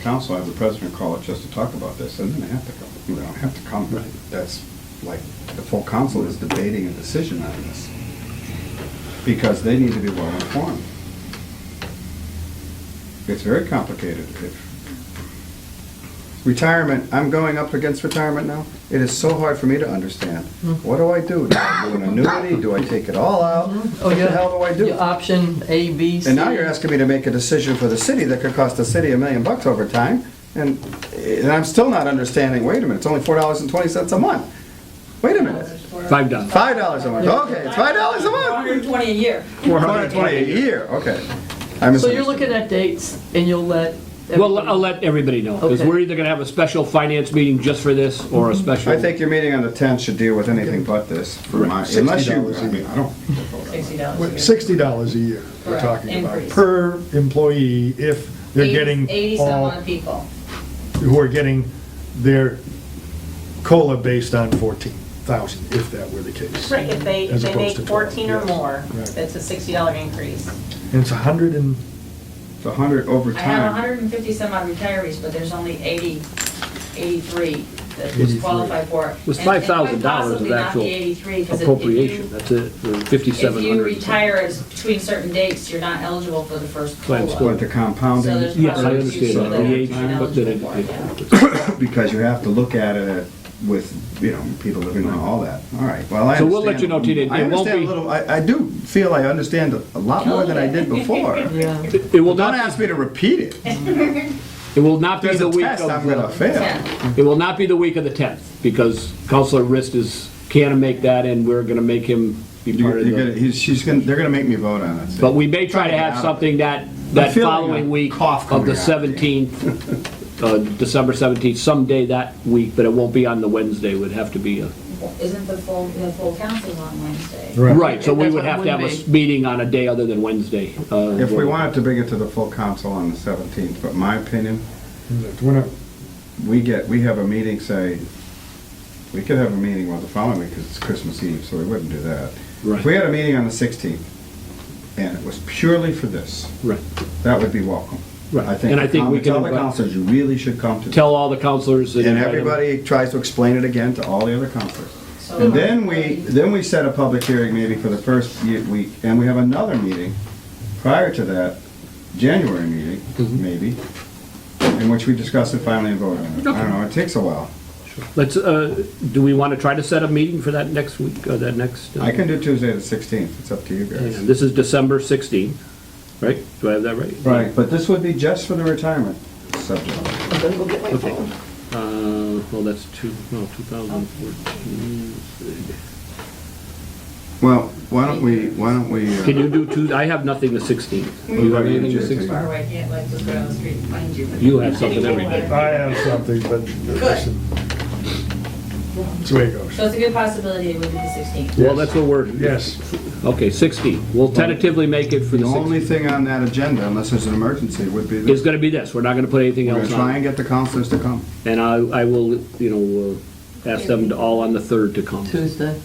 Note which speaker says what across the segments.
Speaker 1: council, have the president call it just to talk about this, and then they have to come. They don't have to come.
Speaker 2: Right.
Speaker 1: That's like, the full council is debating a decision on this. Because they need to be well informed. It's very complicated. If- Retirement, I'm going up against retirement now. It is so hard for me to understand. What do I do? Do I do an annuity? Do I take it all out? What the hell do I do?
Speaker 3: Your Oh, Option A, B, C.
Speaker 1: And now you're asking me to make a decision for the city that could cost the city a million bucks over time, and, and I'm still not understanding, wait a minute, it's only four dollars and twenty cents a month. Wait a minute,
Speaker 2: Five dollars.
Speaker 1: five dollars a month, okay, it's five dollars a month?
Speaker 4: 120 a year.
Speaker 1: Four hundred and twenty a year, okay. I
Speaker 3: So you're looking
Speaker 1: misunderstood.
Speaker 3: at dates and you'll let.
Speaker 2: Well,
Speaker 3: everybody-
Speaker 2: I'll let everybody know, because
Speaker 3: Okay.
Speaker 2: we're either gonna have a special finance meeting just for this, or a special.
Speaker 1: I think your meeting on the tenth should deal with anything but this, for my,
Speaker 5: Right.
Speaker 1: unless you,
Speaker 5: $60
Speaker 1: I mean, I don't.
Speaker 5: What,
Speaker 4: $60
Speaker 5: Sixty dollars a year, we're
Speaker 4: Correct.
Speaker 5: talking about,
Speaker 4: Increase.
Speaker 5: per employee, if
Speaker 4: a
Speaker 5: they're
Speaker 4: year.
Speaker 5: getting
Speaker 4: 80 some
Speaker 5: all,
Speaker 4: odd people.
Speaker 5: who are getting their COLA based on fourteen thousand, if that were the case.
Speaker 4: Right, if they, if
Speaker 5: As
Speaker 4: they
Speaker 5: opposed
Speaker 4: make
Speaker 5: to 12,
Speaker 4: 14 or
Speaker 5: yes.
Speaker 4: more,
Speaker 5: Right.
Speaker 4: that's a $60 increase.
Speaker 5: And it's a hundred and,
Speaker 1: It's a hundred over
Speaker 4: I have
Speaker 1: time.
Speaker 4: 150 some odd retirees, but there's only 80, 83 that was
Speaker 5: 83.
Speaker 4: qualified for. it.
Speaker 2: It was
Speaker 4: And- and
Speaker 2: five
Speaker 4: quite
Speaker 2: thousand dollars
Speaker 4: possibly
Speaker 2: of
Speaker 4: not
Speaker 2: actual
Speaker 4: the 83, 'cause if- if you-
Speaker 2: appropriation, that's it,
Speaker 4: If
Speaker 2: fifty-seven
Speaker 4: you
Speaker 2: hundred.
Speaker 4: retire as- between certain dates, you're not eligible for the first
Speaker 2: Plan
Speaker 4: COLA.
Speaker 1: But the compounding.
Speaker 4: So there's
Speaker 2: Yes, I
Speaker 4: probably two people
Speaker 2: understand,
Speaker 4: that
Speaker 2: the
Speaker 4: are
Speaker 2: age, but then
Speaker 4: ineligible for it, yeah.
Speaker 2: it-
Speaker 1: because you have to look at it with, you know, people living on all that. All right, well, I
Speaker 2: So
Speaker 1: understand.
Speaker 2: we'll let you know, Tina, it
Speaker 1: I
Speaker 2: won't
Speaker 1: understand
Speaker 2: be-
Speaker 1: a little, I, I do feel I understand a lot more than I did before.
Speaker 3: Yeah.
Speaker 2: it, it will
Speaker 1: Well, don't
Speaker 2: not,
Speaker 1: ask me to repeat it. If
Speaker 2: it will not be
Speaker 1: There's
Speaker 2: the
Speaker 1: a
Speaker 2: week
Speaker 1: test, I'm
Speaker 2: of,
Speaker 1: gonna
Speaker 2: the-
Speaker 1: fail.
Speaker 4: Yeah.
Speaker 2: it will not be the week of the tenth, because Counselor Rist is, can't make that, and we're gonna make him be
Speaker 1: You're
Speaker 2: part of
Speaker 1: you're
Speaker 2: the.
Speaker 1: gonna, he's, she's gonna, they're gonna make me vote on it.
Speaker 2: But we may try to have something that, that
Speaker 1: feeling a
Speaker 2: following week
Speaker 1: cough
Speaker 2: of the
Speaker 1: coming out.
Speaker 2: 17th, uh, December 17th, someday that week, but it won't be on the Wednesday, would have to be a,
Speaker 4: Isn't the full, the full council's on Wednesday?
Speaker 5: Right.
Speaker 2: right, so we
Speaker 3: That's what
Speaker 2: would
Speaker 3: it
Speaker 2: have to have a
Speaker 3: would
Speaker 2: s- meeting on a day other than Wednesday. uh,
Speaker 1: If we
Speaker 2: where-
Speaker 1: wanted to bring it to the full council on the seventeenth, but my opinion,
Speaker 5: we're not,
Speaker 1: we get, we have a meeting, say, we could have a meeting well the following week, because it's Christmas Eve, so we wouldn't do that. If we
Speaker 2: Right,
Speaker 1: had a meeting on the sixteenth, and it was purely for this,
Speaker 2: right.
Speaker 1: That would be welcome.
Speaker 2: Right. And I think we
Speaker 1: the coun- Tell
Speaker 2: can
Speaker 1: the
Speaker 2: invite-
Speaker 1: counselors, you really should come to this.
Speaker 2: Tell all the counselors.
Speaker 1: And
Speaker 2: invite them.
Speaker 1: everybody tries to explain it again to all the other counselors.
Speaker 4: So-
Speaker 1: And then we, then we set a public hearing maybe for the first ye- week, and we have another meeting prior to that, January meeting,
Speaker 2: Mm-hmm.
Speaker 1: maybe, in which we discuss it finally and vote on it. I don't know, it takes a while.
Speaker 2: Let's, uh, do we want to try to set a meeting for that next week, or that next? uh,
Speaker 1: I can do Tuesday the sixteenth, it's up to you
Speaker 2: hang on,
Speaker 1: guys.
Speaker 2: This is December 16th, right? Do I have that right?
Speaker 1: Right, but this would be just for the retirement subject.
Speaker 3: I'm gonna go get my
Speaker 2: Okay.
Speaker 3: phone.
Speaker 2: Uh, Well, that's two, no, 2014.
Speaker 1: Well, why don't we, why don't we, uh,
Speaker 2: Can you do two, I have nothing the 16th. Do you have anything the 16th?
Speaker 4: Far away, I can't like look down the street and find you.
Speaker 2: You have something every day.
Speaker 5: I have something, but listen. That's the way it goes.
Speaker 4: So it's a good possibility it would be the 16th.
Speaker 2: Well, that's what we're,
Speaker 5: Yes,
Speaker 2: okay, 16. We'll tentatively make it for the
Speaker 1: The only
Speaker 2: 16th.
Speaker 1: thing on that agenda, unless there's an emergency, would be
Speaker 2: It's
Speaker 1: this.
Speaker 2: going to be this, we're not going to put anything
Speaker 1: We're gonna
Speaker 2: else
Speaker 1: try
Speaker 2: on.
Speaker 1: and get the counselors to come.
Speaker 2: And I, I will, you know, uh, ask them to all on the 3rd to come. Is
Speaker 3: Tuesday.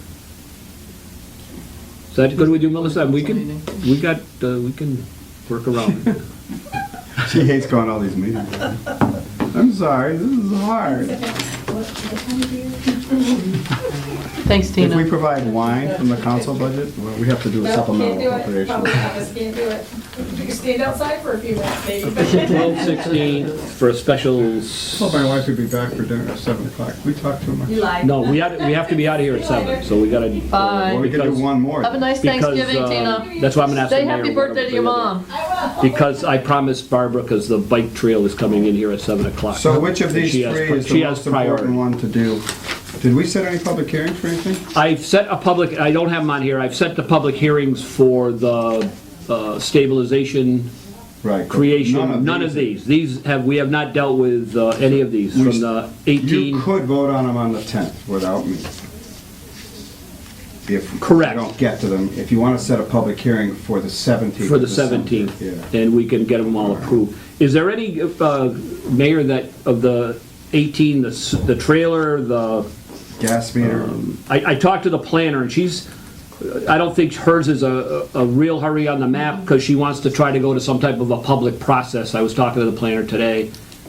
Speaker 2: that good with you, Melissa? We can, we got, uh, we can work around. it.
Speaker 1: She hates going to all these meetings. I'm sorry, this is hard.
Speaker 3: Thanks,
Speaker 1: If we
Speaker 3: Tina.
Speaker 1: provide wine from the council budget, well, we have to do a supplemental appropriation.
Speaker 4: office can't do it. You can stand outside for a few minutes, maybe.
Speaker 2: 12, 16 for a special, s-
Speaker 1: Well, my wife would be back for dinner at seven o'clock. We talk too much.
Speaker 4: You lied.
Speaker 2: no, we have, we have to be out of here at 7, so we got to.
Speaker 3: Bye.
Speaker 1: Well, we could do one more.
Speaker 3: Have a nice
Speaker 2: Because,
Speaker 3: Thanksgiving,
Speaker 2: uh,
Speaker 3: Tina.
Speaker 2: That's why I'm gonna ask.
Speaker 3: Say
Speaker 2: the mayor
Speaker 3: happy
Speaker 2: what I'm
Speaker 3: birthday to your
Speaker 2: gonna do.
Speaker 3: mom.
Speaker 2: Because I promised Barbara, because the bike trail is coming in here at seven o'clock.
Speaker 1: So which of
Speaker 2: And
Speaker 1: these
Speaker 2: she
Speaker 1: three
Speaker 2: has-
Speaker 1: is
Speaker 2: she
Speaker 1: the
Speaker 2: has
Speaker 1: most important
Speaker 2: priority.
Speaker 1: one to do? Did we set any public hearings for anything?
Speaker 2: I've set a public, I don't have them on here, I've set the public hearings for the uh, stabilization
Speaker 1: Right.
Speaker 2: creation, none of these. These have, we have not dealt with uh, any of these,
Speaker 1: We
Speaker 2: from
Speaker 1: s-
Speaker 2: the
Speaker 1: You
Speaker 2: 18,
Speaker 1: could vote on them on the 10th without me. If you
Speaker 2: Correct.
Speaker 1: don't get to them, if you want to set a public hearing for the 17th.
Speaker 2: for the
Speaker 1: of December,
Speaker 2: 17th,
Speaker 1: Yeah.
Speaker 2: and we can get them all approved. Is there any, uh, Mayor, that, of the 18, the s- the trailer, the
Speaker 1: Gas meter,
Speaker 2: I, I talked to the planner, and she's, I don't think hers is a, a real hurry on the map, because she wants to try to go to some type of a public process. I was talking to the planner today,